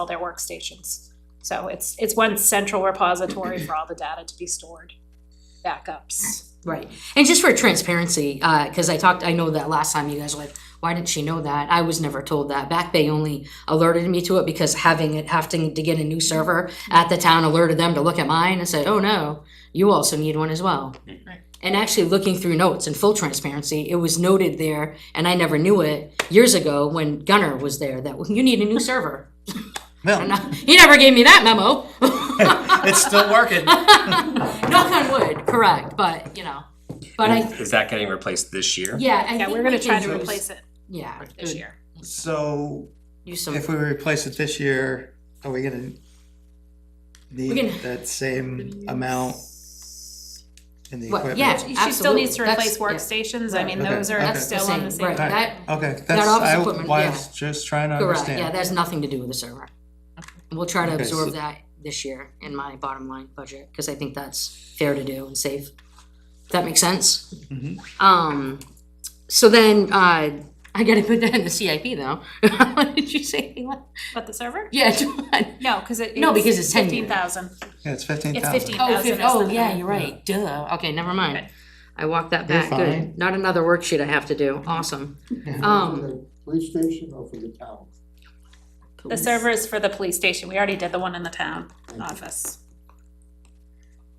all their workstations. So it's, it's one central repository for all the data to be stored, backups. Right, and just for transparency, because I talked, I know that last time you guys were like, why didn't she know that? I was never told that. Back Bay only alerted me to it because having it, having to get a new server at the town alerted them to look at mine and said, oh no, you also need one as well. And actually looking through notes in full transparency, it was noted there, and I never knew it years ago when Gunner was there, that "Well, you need a new server. And Well, I- He never gave me that memo. it's still working. Knock on wood, correct, but, you know, but I, Is that getting replaced this year? yeah, I think Yeah, we're gonna we try can to use- replace it Yeah. this good. year. So Use some, if we replace it this year, are we gonna need gonna- that same amount in the Well, equipment? yeah. She still needs to Absolutely. replace That's- workstations, I mean, Okay, those okay. are that's the still on same, the same. right, Right. that, Okay, that's, office I equipment, was just trying to correct, yeah, understand. that has nothing to do with the server. We'll try to Okay, absorb so- that this year in my bottom line budget, because I think that's fair to do and safe. If That makes sense? Mhm. Um, so then, uh, I gotta put that in the CIP though. What Did you say? But the server? Yeah, John. No, cause it. No, because it's 10 year. Fifteen thousand. Yeah, it's fifteen It's thousand. 15,000. Oh, Thousand is fif- oh, the- yeah, you're right, duh, okay, never mind. Okay. I walked that You're back, good. fine. Not another worksheet I have to do, awesome. For Um, the Police station or for the town? The server is for the police station, we already did the one in the town office.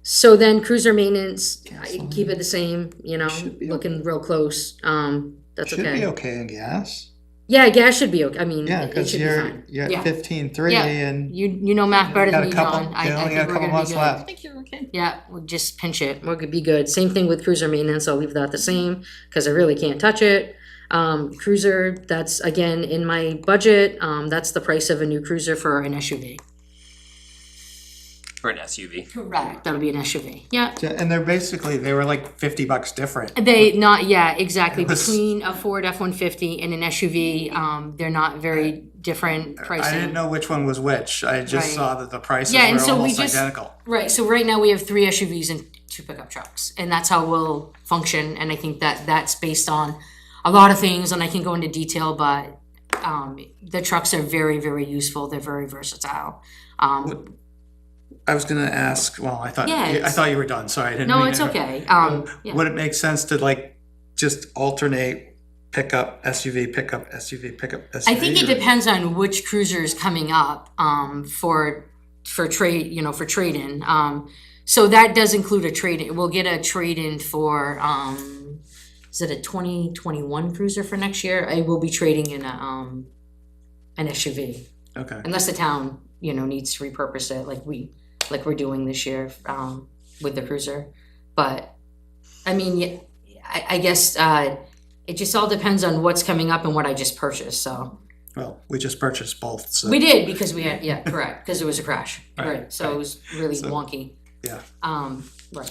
So then cruiser maintenance, I keep it the same, you know, Should be looking real close, um, that's Should be okay. okay in gas. Yeah, gas should be okay, I mean, Yeah, it it cause should be you're, fine. you're Yeah. at fifteen-three Yeah. and You, you know math better than got a me, couple, John. I, you I only think got a we're couple gonna months be left. good. Yeah, we'll just pinch it, we'll be good, same thing with cruiser maintenance, I'll leave that the same, cause I really can't touch it. Um, cruiser, that's again in my budget, um, that's the price of a new cruiser for an SUV. For an SUV? Correct. That'll be an SUV, yeah. Yeah, And they're basically, they were like fifty bucks different. They not yeah exactly This- between a Ford F one fifty and an SUV. Um, they're not very different pricing. I didn't know which one was which. I Right. just saw that the prices Yeah, and were so we almost just- identical. Right. So right now we have three SUVs and two pickup trucks, and that's how we'll function. And I think that that's based on a lot of things, and I can go into detail, but um, the trucks are very very useful. They're very versatile. Um, I was gonna ask, well, I thought, Yeah, I it's- thought you were done, sorry, I didn't mean no, to it's interrupt. okay. Um, yeah. Would it make sense to like just alternate pickup SUV, pickup SUV, pickup SUV? I think it or- depends on which cruiser is coming up um, for for trade, you know, for trade in. Um, so that does include a trade in. We'll get a trade in for um, is it a twenty twenty one cruiser for next year? I will be trading in a um, an SUV Okay, unless the town you know needs to repurpose it like we like we're doing this year um, with the cruiser but i mean yeah, I, I guess uh, it just all depends on what's coming up and what i just purchased so well, we just purchased both, so. we did because we had yeah correct because it was a crash right, Right, so it was really So- wonky Yeah. um right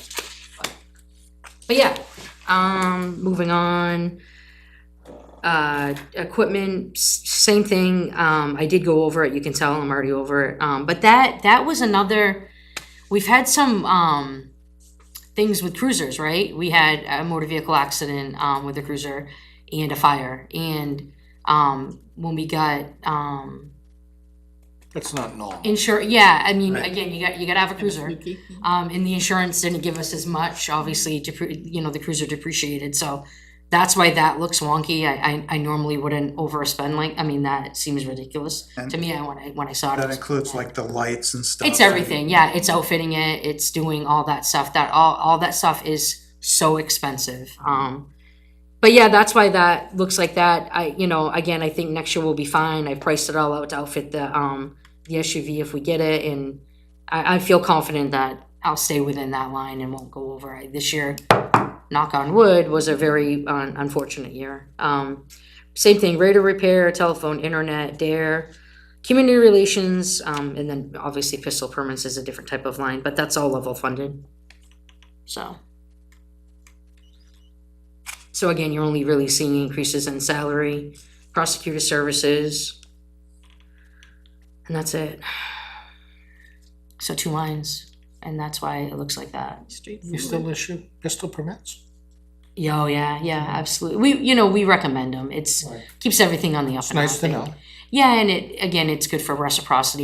but, but yeah um moving on uh, equipment, s- same thing, um, I did go over it, you can tell I'm already over it, um, but that, that was another, we've had some, um, things with cruisers, right? We had a motor vehicle accident, um, with a cruiser and a fire, and, um, when we got, um. It's not normal. Insure, yeah, I mean, Right. again, you got, you gotta have a cruiser. Um, and the insurance didn't give us as much, obviously, depre- you know, the cruiser depreciated, so that's why that looks wonky. I, I, I normally wouldn't overspend like, I mean, that seems ridiculous And to me I- when I, when I saw it. I That was- includes like the lights and stuff. It's everything, yeah, it's outfitting it, it's doing all that stuff, that, all, all that stuff is so expensive. Um, but yeah, that's why that looks like that. I, you know, again, I think next year will be fine. I priced it all out to outfit the, um, the SUV if we get it and I, I feel confident that I'll stay within that line and won't go over. I- This year, knock on wood, was a very un- unfortunate year. Um, same thing, radar repair, telephone, internet, dare, community relations, um, and then obviously pistol permits is a different type of line, but that's all level funded. So. So again, you're only really seeing increases in salary, prosecutor services. And that's it. So two lines, and that's why it looks like that. You still issue pistol permits? Yeah, oh yeah, yeah, absolutely. We, you know, we recommend them. It's Right. keeps everything on the up It's and up. nice to know. Yeah, and it again, it's good for reciprocity